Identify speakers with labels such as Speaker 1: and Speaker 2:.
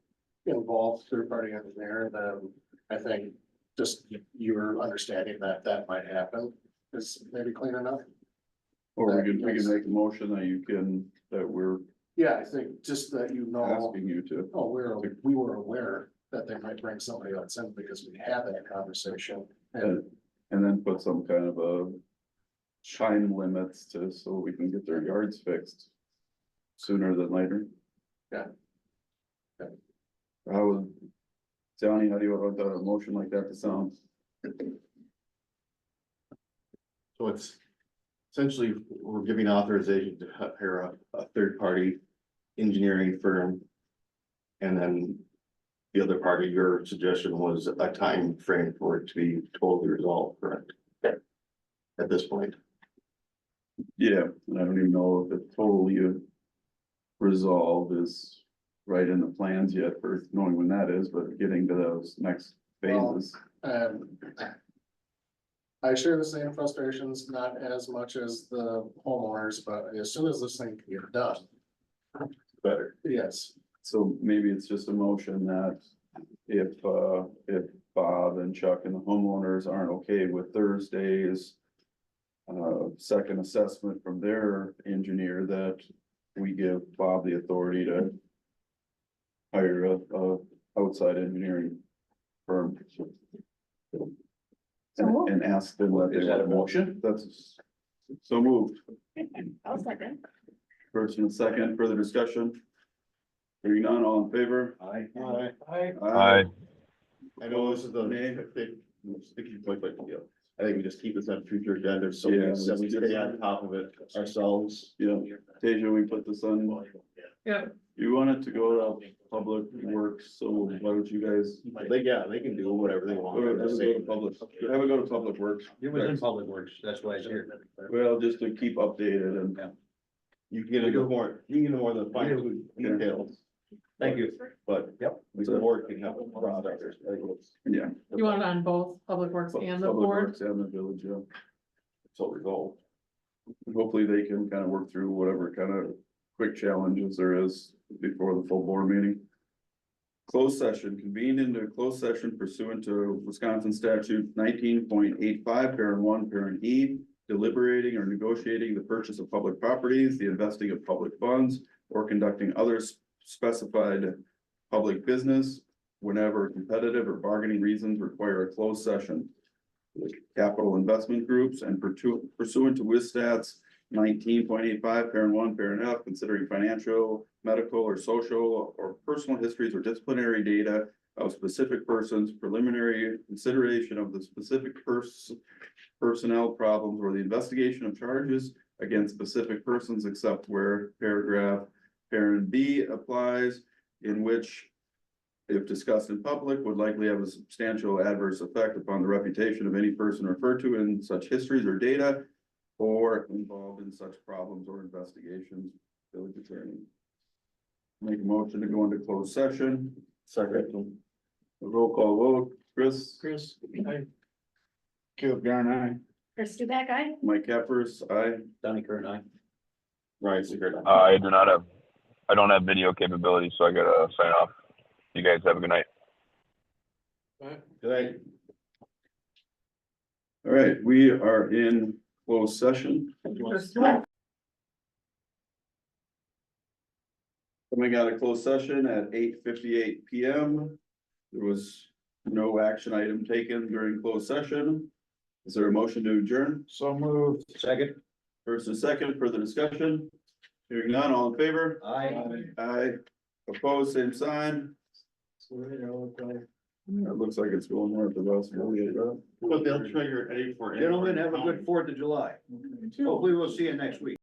Speaker 1: involved third party engineer, then I think just your understanding that that might happen is maybe clean enough.
Speaker 2: Or we can, we can make a motion that you can, that we're
Speaker 1: Yeah, I think just that you know,
Speaker 2: asking you to.
Speaker 1: oh, we're, we were aware that they might bring somebody else in because we had that conversation. And
Speaker 2: And, and then put some kind of a time limits to, so we can get their yards fixed sooner than later.
Speaker 1: Yeah. Yeah.
Speaker 2: How would, Johnny, how do you want a motion like that to sound?
Speaker 3: So it's essentially, we're giving authorization to hu- hire a, a third party engineering firm. And then the other part of your suggestion was a time frame for it to be totally resolved, correct? At this point,
Speaker 2: Yeah, and I don't even know if it totally resolved is right in the plans yet for knowing when that is, but getting to those next
Speaker 1: Well,
Speaker 2: phases.
Speaker 1: Um, I share the same frustrations, not as much as the homeowners, but as soon as this thing can get done,
Speaker 3: better.
Speaker 1: yes,
Speaker 2: So maybe it's just a motion that if, uh, if Bob and Chuck and the homeowners aren't okay with Thursday's. Uh, second assessment from their engineer that we give Bob the authority to. Hire a, a outside engineering firm. And, and ask them what they.
Speaker 3: Is that a
Speaker 2: want.
Speaker 3: motion?
Speaker 2: That's, so moved.
Speaker 4: I'll second.
Speaker 2: First and second, further discussion. Hearing none, all in favor?
Speaker 3: I,
Speaker 2: Aye.
Speaker 3: I know this is the, sticky point, but yeah, I think we just keep this on future agenda, so we
Speaker 2: Yeah.
Speaker 3: so we stay on top of it ourselves.
Speaker 2: Yeah, Tasia, we put this on, you wanted to go to public works, so why don't you guys?
Speaker 3: They, yeah, they can do whatever they want.
Speaker 2: Or have it go to public, have it go to public works.
Speaker 5: It was in public works, that's why it's here.
Speaker 2: Well, just to keep updated and,
Speaker 3: You can get into more, you can get more of the fine
Speaker 2: Yeah.
Speaker 3: details,
Speaker 5: Thank you.
Speaker 3: but
Speaker 5: Yep.
Speaker 3: we can work and have a product. or something.
Speaker 2: yeah.
Speaker 6: You want it on both Public Works and the
Speaker 2: Public
Speaker 6: board?
Speaker 2: Works And the village, yeah.
Speaker 3: So we go.
Speaker 2: Hopefully they can kind of work through whatever kind of quick challenges there is before the full board meeting. Closed session, convened into a closed session pursuant to Wisconsin statute nineteen point eight five, parent one, parent E. Deliberating or negotiating the purchase of public properties, the investing of public funds, or conducting other s- specified. Public business whenever competitive or bargaining reasons require a closed session. The Capital investment groups and pursuant pursuant to WISTATS nineteen point eight five, parent one, parent F, considering financial, medical, or social, or personal histories or disciplinary data of specific persons, preliminary consideration of the specific person, personnel problems, or the investigation of charges against specific persons except where paragraph parent B applies, in which if discussed in public, would likely have a substantial adverse effect upon the reputation of any person referred to in such histories or data or involved in such problems or investigations, village attorney. Make a motion to go into closed session.
Speaker 3: Second.
Speaker 2: Roll call vote, Chris,
Speaker 1: Chris,
Speaker 2: Caleb Garn, aye.
Speaker 4: Chris Dubak, aye?
Speaker 2: Mike Capers, aye.
Speaker 5: Donnie Kern, aye.
Speaker 3: Right, so you're-
Speaker 7: I do not have, I don't have video capability, so I gotta sign off. You guys have a good night.
Speaker 3: Good night.
Speaker 2: All right, we are in closed session. Coming out of closed session at eight fifty-eight PM. There was no action item taken during closed session. Is there a motion to adjourn?
Speaker 1: so moved.
Speaker 5: Second.
Speaker 2: First and second, further discussion? Hearing none, all in favor?
Speaker 5: Aye.
Speaker 2: Aye. Opposed, same sign. It looks like it's going north of us.
Speaker 3: But they'll trigger any for.
Speaker 2: Oh,
Speaker 5: Gentlemen, have a good Fourth of July. Hopefully we'll see you next week.